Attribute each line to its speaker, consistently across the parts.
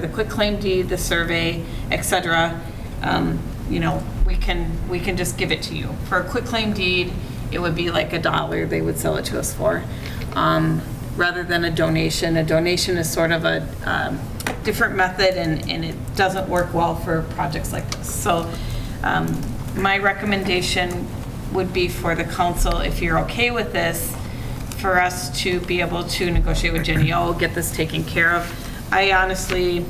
Speaker 1: the quitclaim deed, the survey, et cetera, um, you know, we can, we can just give it to you. For a quitclaim deed, it would be like a dollar they would sell it to us for, um, rather than a donation. A donation is sort of a um, different method, and, and it doesn't work well for projects like this. So um, my recommendation would be for the council, if you're okay with this, for us to be able to negotiate with Jenny O, get this taken care of. I honestly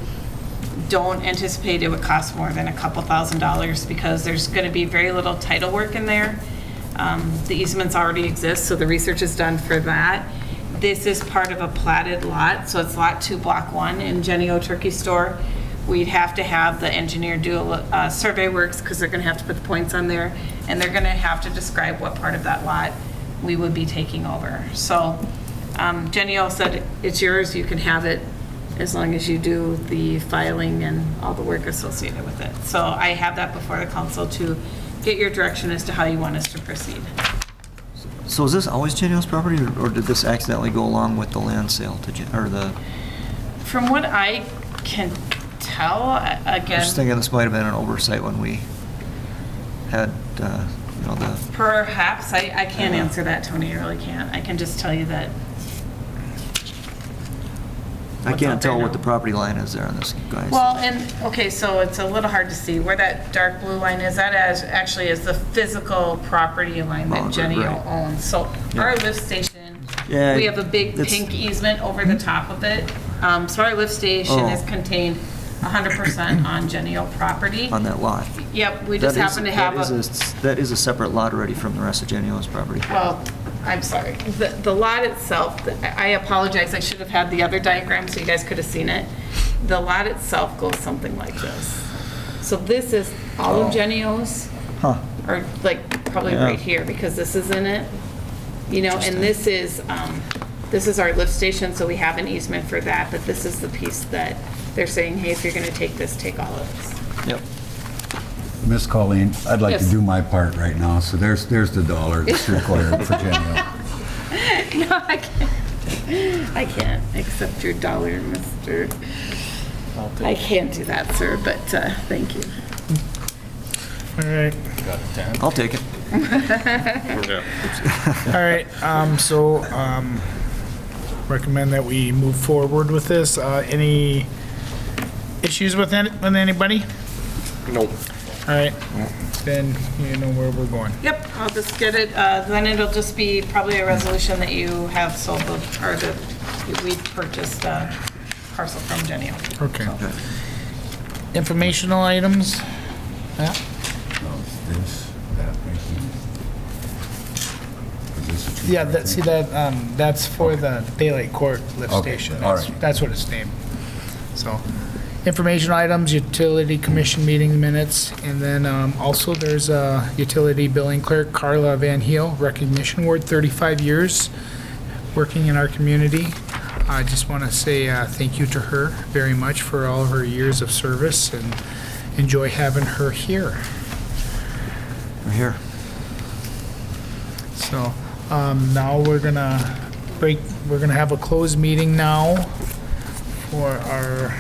Speaker 1: don't anticipate it would cost more than a couple thousand dollars because there's going to be very little title work in there. Um, The easements already exist, so the research is done for that. This is part of a platted lot, so it's Lot 2, Block 1 in Jenny O Turkey Store. We'd have to have the engineer do uh, survey works because they're going to have to put the points on there, and they're going to have to describe what part of that lot we would be taking over. So um, Jenny O said, it's yours, you can have it as long as you do the filing and all the work associated with it. So I have that before the council to get your direction as to how you want us to proceed.
Speaker 2: So is this always Jenny O's property, or- or did this accidentally go along with the land sale to, Jen- or the,
Speaker 1: From what I can tell, a-
Speaker 2: I was
Speaker 1: again,
Speaker 2: thinking this might have been an oversight when we had, uh, you know, the,
Speaker 1: perhaps, I, I can't answer that, Tony, I really can't. I can just tell you that
Speaker 2: I
Speaker 1: What's out
Speaker 2: can't
Speaker 1: there
Speaker 2: tell
Speaker 1: now?
Speaker 2: what the property line is there on this, guys.
Speaker 1: Well, and, okay, so it's a little hard to see where that dark blue line is. That as, actually is the physical property line
Speaker 2: Oh,
Speaker 1: that
Speaker 2: right,
Speaker 1: Jenny
Speaker 2: right.
Speaker 1: owns. So our lift station,
Speaker 2: Yeah,
Speaker 1: we have a big
Speaker 2: it's-
Speaker 1: pink easement over the top of it. Um, So our lift station
Speaker 2: Oh.
Speaker 1: is contained 100% on Genio property.
Speaker 2: On that lot.
Speaker 1: Yep, we just
Speaker 2: That is-
Speaker 1: happen to have a.
Speaker 2: that is s- That is a separate lot already from the rest of Jenny O's property.
Speaker 1: Well, I'm sorry. The, the lot itself, I apologize, I should have had the other diagram so you guys could have seen it. The lot itself goes something like this. So this is all of Genio's,
Speaker 2: Oh. Huh.
Speaker 1: or like probably
Speaker 2: Yeah.
Speaker 1: right here, because this is in it. You know, and this is, um, this is our lift station, so we have an easement for that, but this is the piece that they're saying, hey, if you're gonna take this, take all of this.
Speaker 2: Yep.
Speaker 3: Miss Colleen, I'd like to
Speaker 1: Yes.
Speaker 3: do my part right now, so there's, there's the dollar that's required for Jenny
Speaker 1: No, I can't, I can't accept your dollar, Mr. I can't do that, sir, but uh, thank you.
Speaker 4: All right,
Speaker 2: I'll take it.
Speaker 4: all right, um, so, um, recommend that we move forward with this. Uh, any issues with any, with anybody? Nope. All right, then you know where we're going.
Speaker 1: Yep, I'll just get it, uh, then it'll just be probably a resolution that you have sold the, or that we purchased a parcel from Genio.
Speaker 4: Okay. Informational items? Yeah,
Speaker 3: O. This, that, right here. Is this a two-
Speaker 4: Yeah. that, see that, um, that's for the Daylight Court lift
Speaker 3: Okay,
Speaker 4: station.
Speaker 3: all
Speaker 4: That's,
Speaker 3: right.
Speaker 4: that's what it's named. So, information items, utility commission meeting minutes, and then, um, also there's, uh, utility billing clerk Carla Van Heel, recognition award, thirty-five years, working in our community. I just want to say, uh, thank you to her very much for all of her years of service and enjoy having her here.
Speaker 2: We're here.
Speaker 4: So um, now we're gonna break, we're gonna have a closed meeting now for our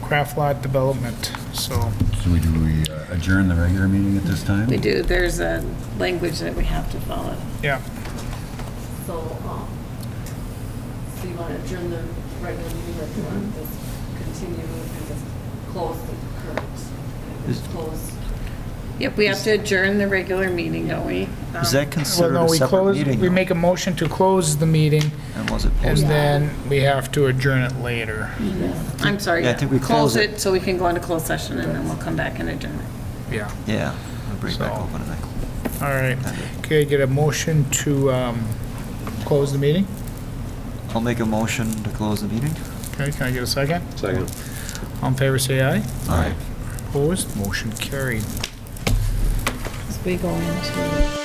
Speaker 4: craft lot development, so.
Speaker 3: So we do, we uh, adjourn the regular meeting at this time?
Speaker 1: We do, there's a language that we have to follow.
Speaker 4: Yeah.
Speaker 5: So, um, so you want to adjourn the regular meeting or do you want to just continue and just close the current? and just
Speaker 2: Is-
Speaker 5: Close.
Speaker 1: Yep, we have to adjourn the regular meeting, don't we? Um,
Speaker 2: Is that
Speaker 4: Well,
Speaker 2: considered
Speaker 4: no,
Speaker 2: a
Speaker 4: we
Speaker 2: separate
Speaker 4: close.
Speaker 2: meeting?
Speaker 4: We
Speaker 2: though?
Speaker 4: make a motion to close the meeting,
Speaker 2: And was it
Speaker 4: and
Speaker 2: posted?
Speaker 4: then we have to adjourn it later.
Speaker 1: I'm sorry.
Speaker 2: Yeah, I think we close it.
Speaker 1: So we can go into closed session, and then we'll come back and adjourn it.
Speaker 4: Yeah,
Speaker 2: Yeah. I'll Bring it back
Speaker 4: So-
Speaker 2: open, I think.
Speaker 4: all right. Okay, get a motion to um, close the meeting?
Speaker 2: I'll make a motion to close the meeting.
Speaker 4: Okay, can I get a second? Second. All in favor, say aye.
Speaker 2: All right.
Speaker 4: Opposed, motion carried.
Speaker 1: we go into.